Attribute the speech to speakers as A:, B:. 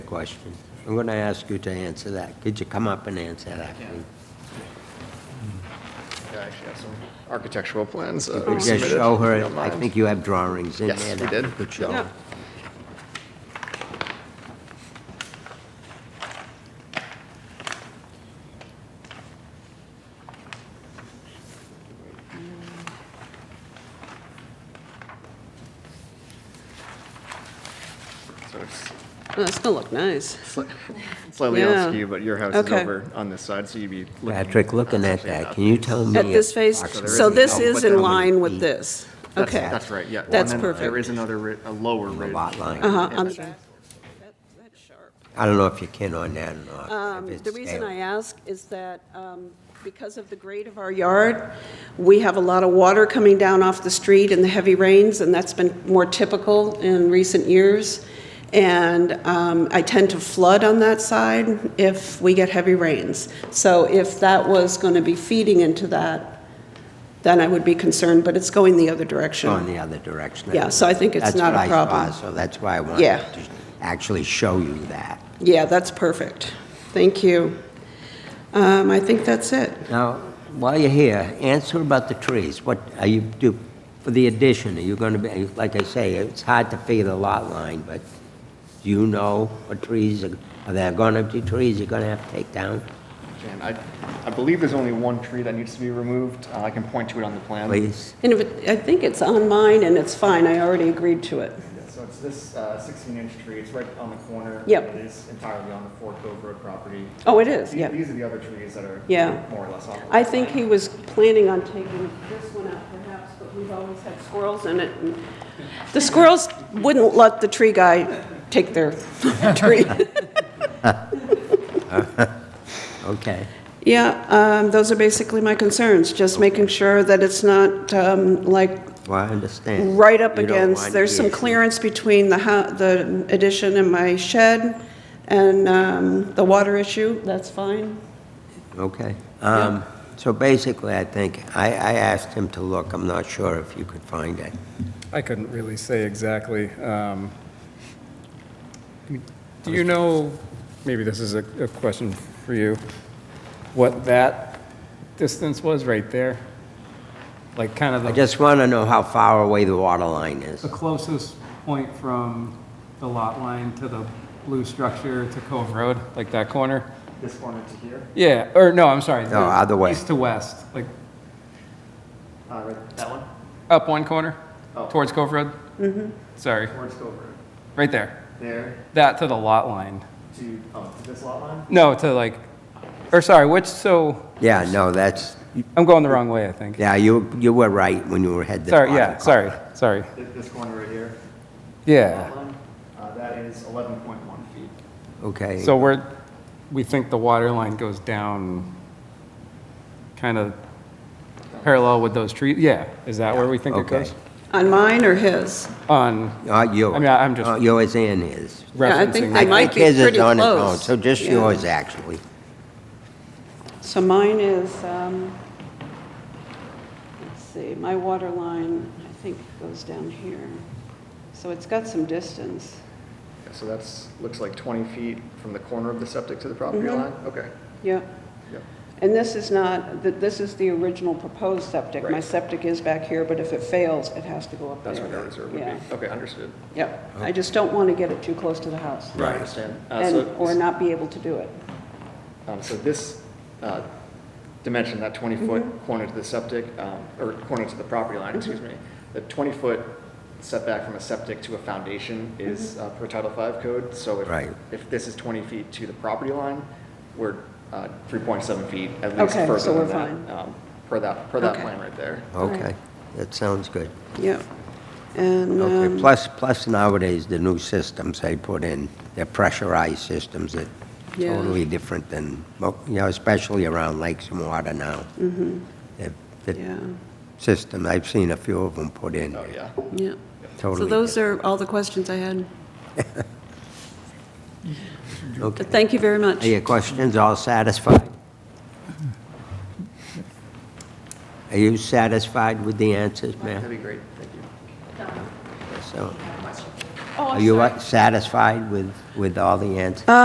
A: question. I'm going to ask you to answer that. Could you come up and answer that, please?
B: I actually have some architectural plans. uh,
A: Could you
B: submitted, if
A: show
B: you
A: her,
B: don't
A: I
B: mind.
A: think you have drawings in there.
B: Yes, we
A: that
B: did.
A: Could show. her.
B: So it's
C: Oh, that's gonna look nice.
B: sli- Slightly
C: Yeah.
B: on skew, but your house is
C: Okay.
B: over on this side, so you'd be looking.
A: Patrick, looking at that, can you tell me?
C: At this phase,
A: approximately
C: so this is
A: how
C: in
A: many
C: line with
A: feet
C: this.
B: That's-
C: Okay.
B: That's right, yeah. Well,
C: That's
B: and then uh, There
C: perfect.
B: is another, ri- a lower
A: the
B: ridge.
A: lot line?
C: Uh-huh, on the back.
A: I don't know if you can on that or not. if
C: Um,
A: it's
C: The reason
A: there.
C: I ask is that um, because of the grade of our yard, we have a lot of water coming down off the street in the heavy rains, and that's been more typical in recent years. And um, I tend to flood on that side if we get heavy rains. So if that was going to be feeding into that, then I would be concerned, but it's going the other direction.
A: Go in the other direction.
C: Yeah, so I think it's
A: That's
C: not a
A: what I
C: problem.
A: saw, So that's why I wanted
C: Yeah.
A: to actually show you that.
C: Yeah, that's perfect. Thank you. Um, I think that's it.
A: Now, while you're here, answer about the trees. What are you do, for the addition, are you going to be, like I say, it's hard to figure the lot line, but do you know what trees, are are there going to be trees you're going to have to take down?
B: And I, I believe there's only one tree that needs to be removed. Uh, I can point to it on the plan.
A: Please?
C: And if it, I think it's on mine, and it's fine, I already agreed to it.
B: Yeah, So it's this uh, sixteen-inch tree, it's right on the corner.
C: Yep.
B: It is entirely on the Fort Cove Road property.
C: Oh, it is,
B: The-
C: yeah.
B: These are the other trees that are
C: Yeah.
B: more or less off.
C: I think he was planning on taking this one out perhaps, but we've always had squirrels in it. and The squirrels wouldn't let the tree guy take their tree.
A: Okay.
C: Yeah, um, those are basically my concerns, just making sure that it's not, um, like,
A: Well, I understand.
C: right up
A: You don't
C: against,
A: want
C: there's some
A: issues.
C: clearance between the hou- the addition and my shed, and, um, the water issue, that's fine.
A: Okay. Um, So basically, I think, I, I asked him to look, I'm not sure if you could find it.
D: I couldn't really say exactly. um, Do you know, maybe this is a a question for you, what that distance was right there? Like kind of
A: I
D: the
A: just want to know how far away the water line is.
D: the closest point from the lot line to the blue structure to Cove Road, like that corner?
B: This corner to here,
D: Yeah, or no, I'm sorry.
A: No, either way.
D: East to west, like
B: uh, right, that one,
D: up one corner
B: Oh.
D: towards Cove Road? Mm-hmm. Sorry,
B: towards Cove Road.
D: right there.
B: There
D: That to the lot line.
B: to, oh, to this lot line?
D: No, to like, or sorry, which, so,
A: Yeah, no, that's,
D: I'm going the wrong way, I think.
A: yeah, you, you were right when you were head.
D: Sorry, yeah, sorry, sorry.
B: This, this corner right here?
D: Yeah,
B: line, uh, that is eleven point one feet.
A: Okay.
D: so we're, we think the water line goes down kind of parallel with those trees, yeah, is that where we think it
A: Okay.
D: goes?
C: On mine or his?
D: On
A: Not yours.
D: I mean, I- I'm just-
A: Not yours and his.
C: Yeah, I think they
D: referencing,
C: might be
A: His is
C: pretty
A: on its own,
C: close.
A: So just
C: Yeah.
A: yours, actually.
C: So mine is, um, let's see, my water line, I think, goes down here. So it's got some distance.
B: So that's, looks like twenty feet from the corner of the septic to the property
C: Mm-hmm.
B: line? Okay,
C: Yep.
B: yep.
C: And this is not, th- this is the original proposed septic. My
B: Right.
C: septic is back here, but if it fails, it has to go up there.
B: That's where the reserve would
C: Yeah.
B: be. Okay, understood.
C: Yep. I just don't want to get it too close to the house.
B: I understand. Uh,
C: And,
B: so-
C: or not be able to do it.
B: Um, So this uh, dimension, that
C: Mm-hmm.
B: 20-foot corner to the septic, um, or corner to the property line, excuse me, the 20-foot setback from a septic to a foundation is
C: Mm-hmm.
B: uh, per Title V code. So
A: Right.
B: if, if this is 20 feet to the property line, we're uh, 3.7 feet at least
C: Okay,
B: further
C: so
B: than
C: we're
B: that. um, Per that, per that
C: Okay.
B: plan right there.
A: Okay, that sounds good.
C: Yep. And,
A: Okay,
C: um,
A: plus, plus nowadays, the new systems they put in, they're pressurized systems that
C: Yeah.
A: totally different than, well, you know, especially around lakes and water now. The-
C: Mm-hmm. yeah,
A: The system, I've seen a few of them put in,
B: Oh, yeah.
C: yeah. So
A: totally.
C: those are all the questions I had.
A: different. Okay.
C: But thank you very much.
A: Are your questions all satisfied? Are you satisfied with the answers, ma'am?
B: That'd be great, thank you.
A: So, Are you uh, satisfied with, with all the answers?